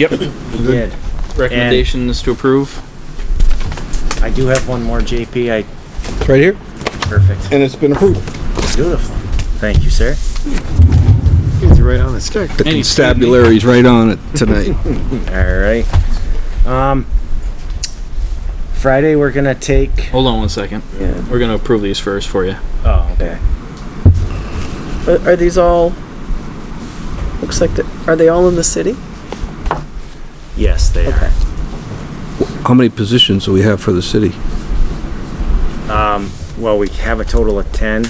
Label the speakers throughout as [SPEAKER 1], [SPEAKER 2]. [SPEAKER 1] Yep.
[SPEAKER 2] We did.
[SPEAKER 3] Recommendations to approve?
[SPEAKER 2] I do have one more, JP. I,
[SPEAKER 4] It's right here.
[SPEAKER 2] perfect.
[SPEAKER 4] And it's been approved.
[SPEAKER 2] Beautiful. Thank you, sir.
[SPEAKER 5] right on the stick.
[SPEAKER 4] The
[SPEAKER 3] Any-
[SPEAKER 4] constabulary's right on it tonight.
[SPEAKER 2] All right. Um, Friday, we're gonna take.
[SPEAKER 3] Hold on one second.
[SPEAKER 1] Yeah.
[SPEAKER 3] We're gonna approve these first for you.
[SPEAKER 2] Oh, okay.
[SPEAKER 1] Are are these all, looks like, the- are they all in the city?
[SPEAKER 2] Yes, they are.
[SPEAKER 1] Okay.
[SPEAKER 4] How many positions do we have for the city?
[SPEAKER 2] Well, we have a total of ten.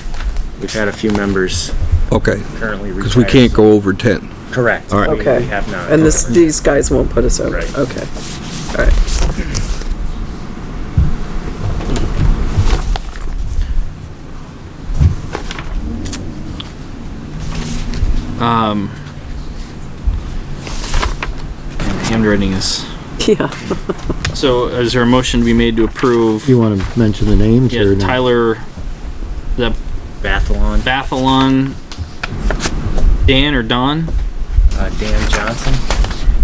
[SPEAKER 2] We've had a few members
[SPEAKER 4] Okay,
[SPEAKER 2] currently
[SPEAKER 4] because we
[SPEAKER 2] retired.
[SPEAKER 4] can't go over 10.
[SPEAKER 2] Correct.
[SPEAKER 4] All right.
[SPEAKER 2] We- we
[SPEAKER 1] Okay.
[SPEAKER 2] have not.
[SPEAKER 1] And this, these guys won't put us over?
[SPEAKER 2] Right.
[SPEAKER 1] Okay. All right.
[SPEAKER 3] Um, and handwriting is.
[SPEAKER 1] Yeah.
[SPEAKER 3] So is there a motion to be made to approve?
[SPEAKER 5] You want to mention the names
[SPEAKER 3] Yeah,
[SPEAKER 5] or not?
[SPEAKER 3] Tyler, the
[SPEAKER 2] Bathalon,
[SPEAKER 3] Bathalon, Dan or Don
[SPEAKER 2] uh, Dan Johnson,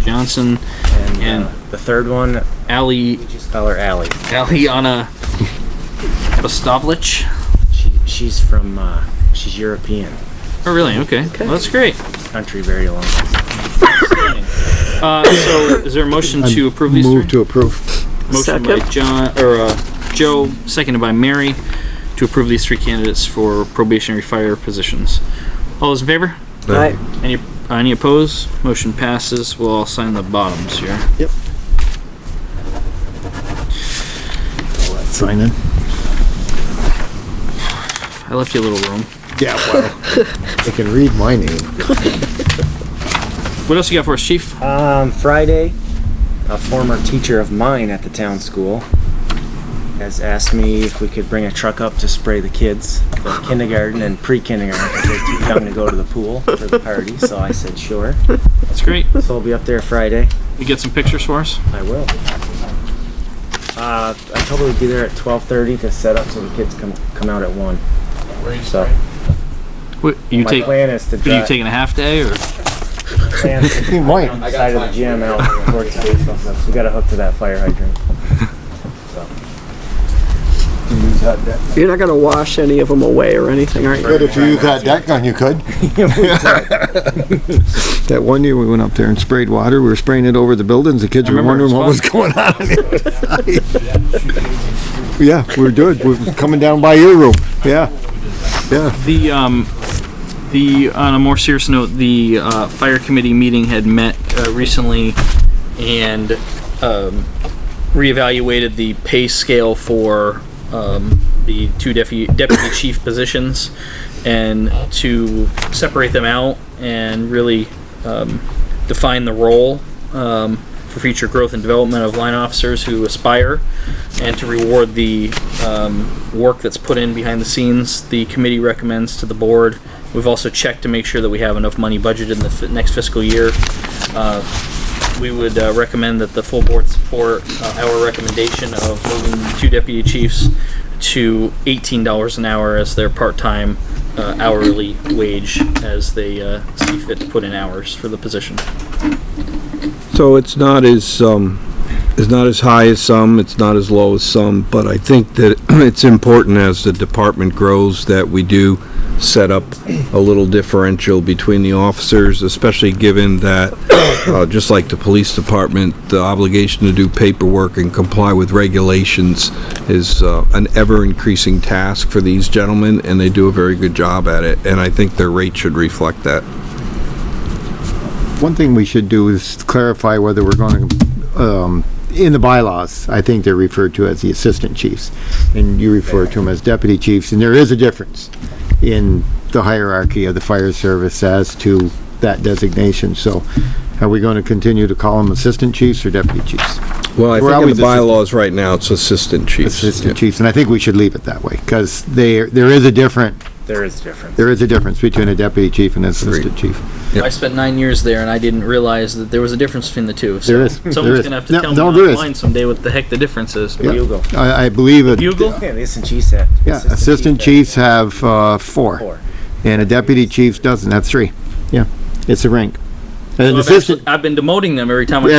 [SPEAKER 3] Johnson,
[SPEAKER 2] and,
[SPEAKER 3] And-
[SPEAKER 2] uh, the third one,
[SPEAKER 3] Ali,
[SPEAKER 2] just call her Allie.
[SPEAKER 3] Aliana Bostovlich.
[SPEAKER 2] She, she's from. Uh, she's European.
[SPEAKER 3] Oh, really? Okay. Well, that's great.
[SPEAKER 2] Country very long.
[SPEAKER 3] Uh, so is there a motion to approve these three?
[SPEAKER 5] Move to approve.
[SPEAKER 3] Motion by
[SPEAKER 1] Second.
[SPEAKER 3] John, or, uh, Joe, seconded by Mary, to approve these three candidates for probationary fire positions. All those in favor?
[SPEAKER 1] All right.
[SPEAKER 3] Any, uh, any opposed? Motion passes. We'll all sign the bottoms here.
[SPEAKER 5] Sign in.
[SPEAKER 3] I left you a little room.
[SPEAKER 5] Yeah, well. They can read my name.
[SPEAKER 3] What else you got for us, chief?
[SPEAKER 2] Um, Friday, a former teacher of mine at the town school has asked me if we could bring a truck up to spray the kids, the kindergarten and pre-kindergarten, 'cause they're too young to go to the pool for the party. So I said, sure.
[SPEAKER 3] That's great.
[SPEAKER 2] So I'll be up there Friday.
[SPEAKER 3] You get some pictures for us?
[SPEAKER 2] I will. Uh, I probably be there at 12:30 to set up so the kids come come out at one. So
[SPEAKER 3] What, you
[SPEAKER 2] my
[SPEAKER 3] take, what,
[SPEAKER 2] plan is to
[SPEAKER 3] are you
[SPEAKER 2] drive.
[SPEAKER 3] taking a half day or?
[SPEAKER 2] plan is to
[SPEAKER 5] You
[SPEAKER 2] on
[SPEAKER 5] might.
[SPEAKER 2] the side of the gym out towards the baseball stuff. So we got to hook to that fire hydrant. So.
[SPEAKER 1] You're not gonna wash any of them away or anything, are you?
[SPEAKER 5] Good if you use that deck gun, you could. That one year we went up there and sprayed water, we were spraying it over the buildings, the kids
[SPEAKER 3] I
[SPEAKER 5] were
[SPEAKER 3] remember it
[SPEAKER 5] wondering what
[SPEAKER 3] was
[SPEAKER 5] was going on. in there. Yeah, we were doing, we were coming down by your room, yeah, yeah.
[SPEAKER 3] The, um, the, on a more serious note, the, uh, fire committee meeting had met, uh, recently and, um, reevaluated the pay scale for, um, the two deputy, deputy chief positions and to separate them out and really, um, define the role, um, for future growth and development of line officers who aspire and to reward the um, work that's put in behind the scenes. The committee recommends to the board. We've also checked to make sure that we have enough money budgeted in the f- next fiscal year. Uh, we would uh, recommend that the full board support uh, our recommendation of moving two deputy chiefs to $18 an hour as their part-time uh, hourly wage as they uh, see fit to put in hours for the position.
[SPEAKER 4] So it's not as, um, it's not as high as some, it's not as low as some, but I think that it's important as the department grows that we do set up a little differential between the officers, especially given that, uh, just like the police department, the obligation to do paperwork and comply with regulations is, uh, an ever-increasing task for these gentlemen, and they do a very good job at it, and I think their rate should reflect that.
[SPEAKER 5] One thing we should do is clarify whether we're going to, um, in the bylaws, I think they're referred to as the assistant chiefs, and you refer to them as deputy chiefs, and there is a difference in the hierarchy of the fire service as to that designation, so are we going to continue to call them assistant chiefs or deputy chiefs?
[SPEAKER 4] Well, I
[SPEAKER 5] We're
[SPEAKER 4] think in
[SPEAKER 5] always
[SPEAKER 4] the bylaws right now, it's assistant chiefs. Yeah.
[SPEAKER 5] Assistant chiefs, and I think we should leave it that way, because they, there is a different,
[SPEAKER 2] There is a difference.
[SPEAKER 5] there is a difference between a deputy chief and an assistant
[SPEAKER 4] Agreed.
[SPEAKER 5] chief.
[SPEAKER 4] Yep.
[SPEAKER 3] I spent nine years there, and I didn't realize that there was a difference between the two. So
[SPEAKER 5] There is.
[SPEAKER 3] Someone's
[SPEAKER 5] There is.
[SPEAKER 3] gonna have to
[SPEAKER 5] No,
[SPEAKER 3] tell
[SPEAKER 5] no,
[SPEAKER 3] me
[SPEAKER 5] there is.
[SPEAKER 3] online someday what the heck the difference is.
[SPEAKER 5] Yeah.
[SPEAKER 2] Bugle.
[SPEAKER 5] I, I believe it.
[SPEAKER 3] Bugle?
[SPEAKER 2] Yeah, this and she said.
[SPEAKER 5] Yeah, assistant chiefs have, uh, four,
[SPEAKER 2] Four.
[SPEAKER 5] and a deputy chief doesn't, that's three, yeah, it's a rank.
[SPEAKER 3] So
[SPEAKER 5] An
[SPEAKER 3] I've,
[SPEAKER 5] assistant,
[SPEAKER 3] actually- I've been demoting them every time I
[SPEAKER 5] Yeah,